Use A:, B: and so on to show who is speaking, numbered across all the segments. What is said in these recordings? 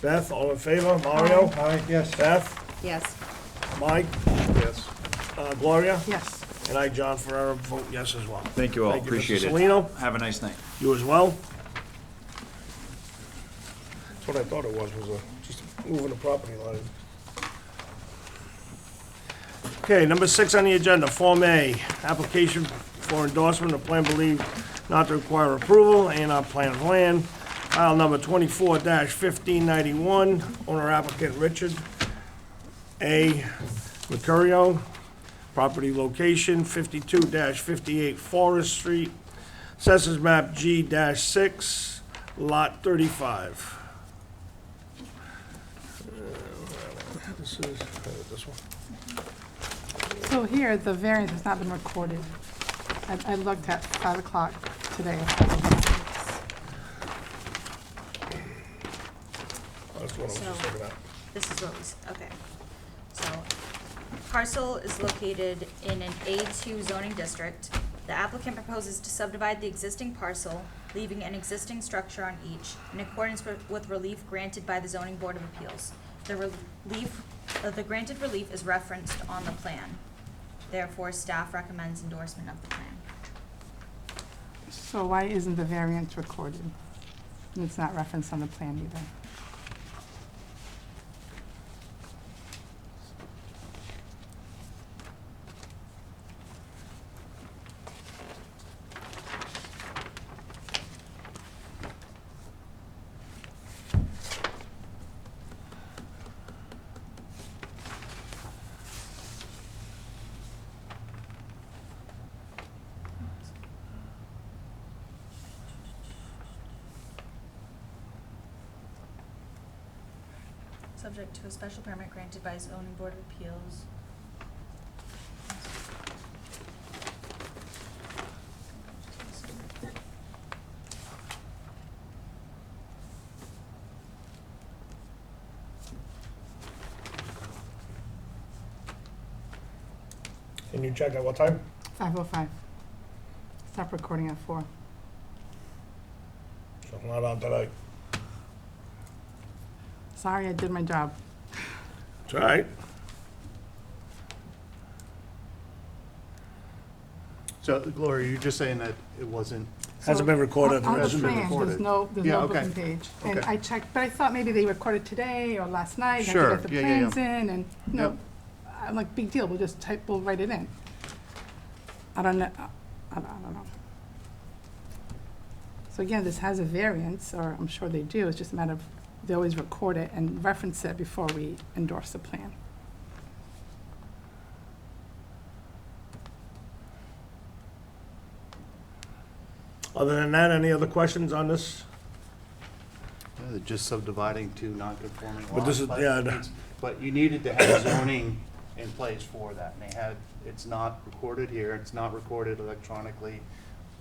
A: Beth, all in favor? Mario?
B: Aye, yes.
A: Beth?
C: Yes.
A: Mike?
B: Yes.
A: Uh, Gloria?
C: Yes.
A: And I, John Ferrera, vote yes as well.
D: Thank you all,
A: Thank you, Mr.
D: appreciate it.
A: Salino.
D: Have a nice night.
A: You as well?
B: That's what I thought it was, was a, just moving the property line.
A: Okay, number six on the agenda, Form A, application for endorsement of plan believed not to require approval, A and R plan of land, file number twenty-four fifteen ninety-one, owner applicant Richard A. Mercurio, property location fifty-two fifty-eight Forest Street, Assessors map G six, lot thirty-five. This is, uh, this one.
E: So here, the variance has not been recorded. I, I looked at five o'clock today.
B: That's what I was just
C: So-
B: looking at.
C: This is what we, s- okay.
F: So parcel is located in an A2 zoning district. The applicant proposes to subdivide the existing parcel, leaving an existing structure on each in accordance with- with relief granted by the zoning board of appeals. The relief, uh, the granted relief is referenced on the plan. Therefore, staff recommends endorsement of the plan.
E: So why isn't the variance recorded? And It's not referenced on the plan either.
F: Subject to a special permit granted by zoning board of appeals.
B: And you check at what time?
E: Five oh five. Stop recording at four.
B: So not on tonight.
E: Sorry, I did my job.
A: It's all right.
G: So Gloria, you're just saying that it wasn't,
A: Hasn't been recorded.
E: On- On the
G: hasn't been
E: plan, there's
G: recorded.
E: no, there's
G: Yeah,
E: no
G: okay.
E: booking page. And
G: Okay.
E: I checked, but I thought maybe they recorded today or last night.
G: Sure,
E: I could get the
G: yeah, yeah, yeah.
E: plans in and, no,
G: Yep.
E: I'm like, big deal, we'll just type, we'll write it in. I don't know, I don't, I don't know. So again, this has a variance, or I'm sure they do, it's just a matter of, they always record it and reference it before we endorse the plan.
A: Other than that, any other questions on this?
G: yeah, they're Uh, just subdividing two non-conforming lots.
A: But this is- yeah, the-
G: it's- But you needed to have zoning in place for that, and they had, it's not recorded here, it's not recorded electronically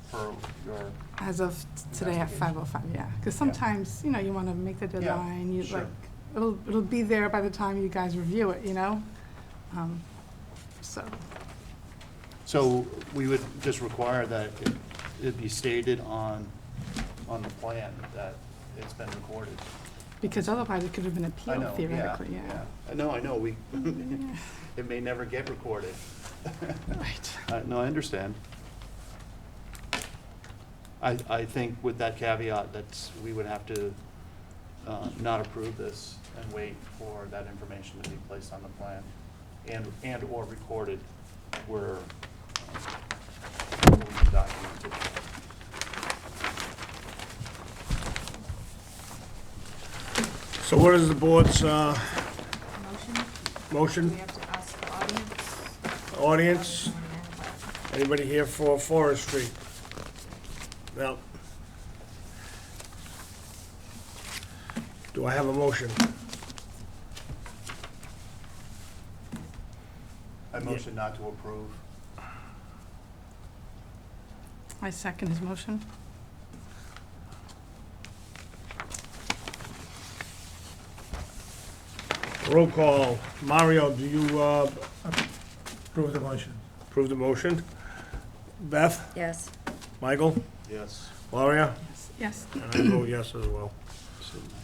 G: for your,
E: As of today at
G: Investigation.
E: five oh five, yeah, because sometimes, you know, you want to make the deadline, you
G: sure.
E: like, it'll, it'll be there by the time you guys review it, you know? Um, So,
G: so we would just require that it- it be stated on, on the plan that it's been recorded.
E: because otherwise it could have been
G: I
E: appealed
G: know, yeah,
E: theoretically, yeah.
G: yeah. I know, I know, we, it may never get recorded.
E: Right.
G: Uh, No, I understand. I, I think with that caveat, that's, we would have to uh, not approve this and wait for that information to be placed on the plan and, and/or recorded where um, we can document it.
A: So what is the board's uh,
F: Motion, we
A: motion?
F: have to ask the audience.
A: Audience, anybody here for Forest Street? No. Do I have a motion?
G: I motion not to approve.
E: I second his motion.
A: Roll call. Mario, do you uh,
B: Approve the motion.
A: approve the motion? Beth?
C: Yes.
A: Michael?
G: Yes.
A: Gloria?
E: Yes,
A: And I vote yes as well.
G: So